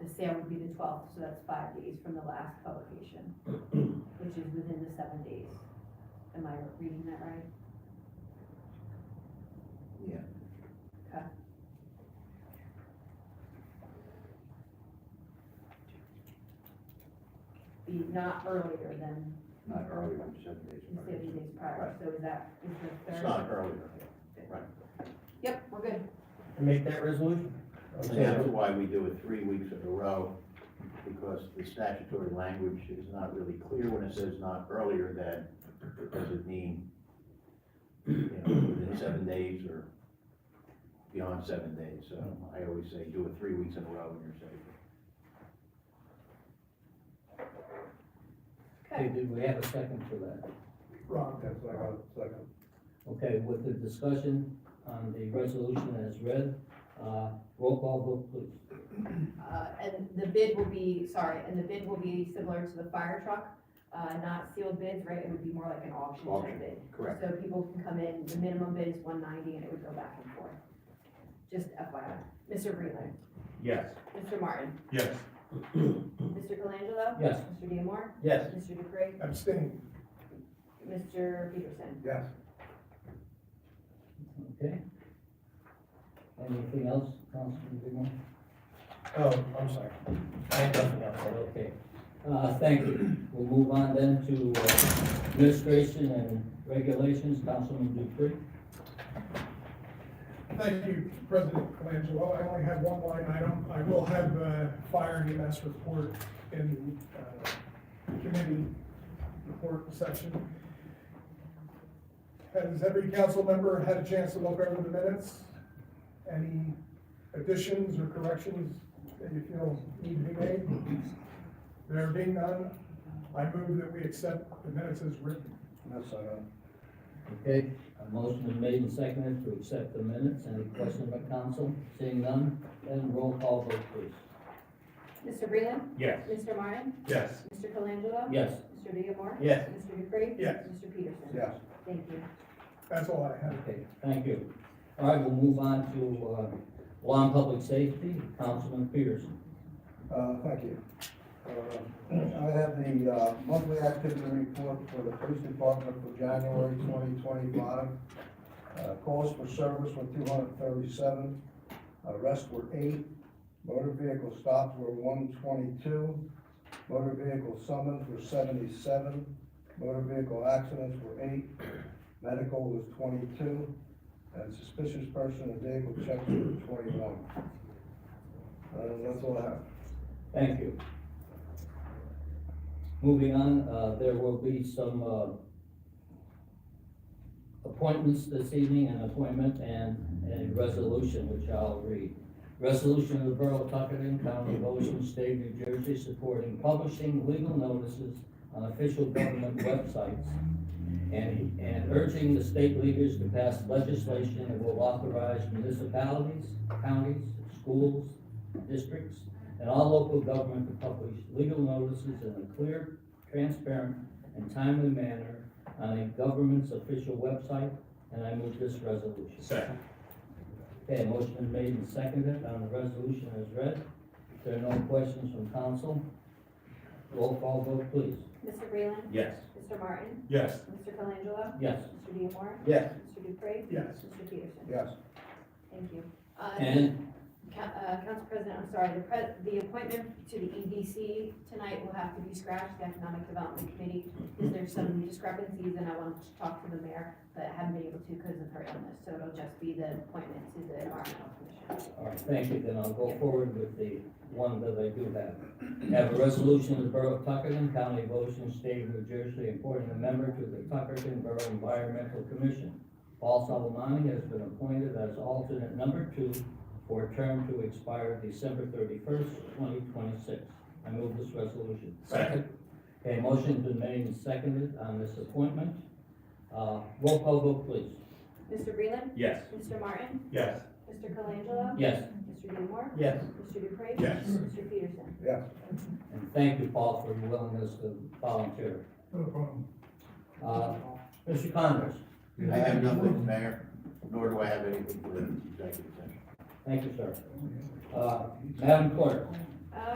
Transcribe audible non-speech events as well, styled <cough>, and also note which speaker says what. Speaker 1: sale would be the twelfth, so that's five days from the last
Speaker 2: <clears throat>
Speaker 1: publication, which is within the seven days. Am I reading that right?
Speaker 2: Yeah.
Speaker 1: Okay. Be not earlier than
Speaker 2: Not earlier than seven days
Speaker 1: the
Speaker 2: prior.
Speaker 1: seven days prior,
Speaker 2: Right.
Speaker 1: so is that, is the third?
Speaker 2: It's not earlier,
Speaker 1: Yep, we're good.
Speaker 3: And make that resolution?
Speaker 2: and that's why we do it three weeks in a row, because the statutory language is not really clear when it says not earlier than, does it mean, you know, within seven days or beyond seven days, so I always say do it three weeks in a row and you're safe.
Speaker 3: Okay,
Speaker 1: Okay,
Speaker 3: did we have a second for that?
Speaker 4: Wrong, that's like a, second.
Speaker 3: Okay, with the discussion on the resolution as read, uh, roll call vote please.
Speaker 1: uh, and the bid will be, sorry, and the bid will be similar to the fire truck, uh, not sealed bids, right? It would be more like an auction
Speaker 2: Auction.
Speaker 1: type bid.
Speaker 2: Correct.
Speaker 1: So people can come in, the minimum bid is one ninety and it would go back and forth. Just FYI. Mr. Breland.
Speaker 5: Yes.
Speaker 1: Mr. Martin.
Speaker 5: Yes.
Speaker 1: Mr. Colangelo.
Speaker 3: Yes.
Speaker 1: Mr. Diemar.
Speaker 3: Yes.
Speaker 1: Mr. Dupree.
Speaker 4: Abstain.
Speaker 1: Mr. Peterson.
Speaker 4: Yes.
Speaker 3: Okay. Anything else, Councilman Bigwin?
Speaker 6: Oh, I'm sorry. I had nothing else.
Speaker 3: Okay, uh, thank you. We'll move on then to uh, administration and regulations, Councilman Dupree.
Speaker 6: Thank you, President Colangelo. I only have one line item. I will have a fire and EMS report in the uh, committee report section. Has every council member had a chance to look over the minutes? Any additions or corrections that you feel need to be made? There being none, I move that we accept the minutes as written.
Speaker 4: That's second.
Speaker 3: Okay, a motion is made and seconded to accept the minutes. Any questions by council? Seeing none, then roll call vote please.
Speaker 1: Mr. Breland.
Speaker 5: Yes.
Speaker 1: Mr. Martin.
Speaker 5: Yes.
Speaker 1: Mr. Colangelo.
Speaker 3: Yes.
Speaker 1: Mr. Diemar.
Speaker 5: Yes.
Speaker 1: Mr. Dupree.
Speaker 6: Yes.
Speaker 1: Mr. Peterson.
Speaker 4: Yes.
Speaker 1: Thank you.
Speaker 6: That's all I have.
Speaker 3: Okay, thank you. All right, we'll move on to, uh, law and public safety, Councilman Peterson.
Speaker 4: Uh, thank you. Uh, <clears throat> I have the, uh, monthly activity report for the police department for January twenty twenty-five. Uh, calls for service were two hundred thirty-seven, arrests were eight, motor vehicle stops were one twenty-two, motor vehicle summons were seventy-seven, motor vehicle accidents were eight, medical was twenty-two, and suspicious person and vehicle checks were twenty-one. Uh, that's all I have.
Speaker 3: Thank you. Moving on, uh, there will be some, uh, appointments this evening, an appointment and a resolution, which I'll read. Resolution of the Borough of Tuckerton, County of Ocean, State of New Jersey, supporting publishing legal notices on official government websites and, and urging the state leaders to pass legislation that will authorize municipalities, counties, schools, districts, and all local government to publish legal notices in a clear, transparent, and timely manner on a government's official website, and I move this resolution.
Speaker 5: Second.
Speaker 3: Okay, motion is made and seconded on the resolution as read. If there are no questions from council, roll call vote please.
Speaker 1: Mr. Breland.
Speaker 5: Yes.
Speaker 1: Mr. Martin.
Speaker 5: Yes.
Speaker 1: Mr. Colangelo.
Speaker 3: Yes.
Speaker 1: Mr. Diemar.
Speaker 3: Yes.
Speaker 1: Mr. Dupree.
Speaker 6: Yes.
Speaker 1: Mr. Peterson.
Speaker 4: Yes.
Speaker 1: Thank you. Uh,
Speaker 3: And,
Speaker 1: Ca- uh, Council President, I'm sorry, the pre- the appointment to the EDC tonight will have to be scratched, the Economic Development Committee, because there's some discrepancies, and I wanted to talk to the mayor, but I haven't been able to because of her illness, so it'll just be the appointment to the Environmental Commission.
Speaker 3: all right, thank you, then I'll go forward with the one that I do have. Have a resolution of the Borough of Tuckerton, County of Ocean, State of New Jersey, appointing a member to the Tuckerton Borough Environmental Commission. Paul Salamani has been appointed as alternate number two for a term to expire December thirty-first, twenty twenty-six. I move this resolution.
Speaker 5: Second.
Speaker 3: Okay, motion's been made and seconded on this appointment. Uh, roll call vote, please.
Speaker 1: Mr. Breland.
Speaker 5: Yes.
Speaker 1: Mr. Martin.
Speaker 5: Yes.
Speaker 1: Mr. Colangelo.
Speaker 3: Yes.
Speaker 1: Mr. Diemar.
Speaker 3: Yes.
Speaker 1: Mr. Dupree.
Speaker 5: Yes.
Speaker 1: Mr. Peterson.
Speaker 3: And thank you, Paul, for your willingness to volunteer.
Speaker 6: No problem.
Speaker 3: Uh, Mr. Connors,
Speaker 2: I have nothing, Mayor, nor do I have anything for the executive session.
Speaker 3: thank you, sir. Uh, Madam Clerk,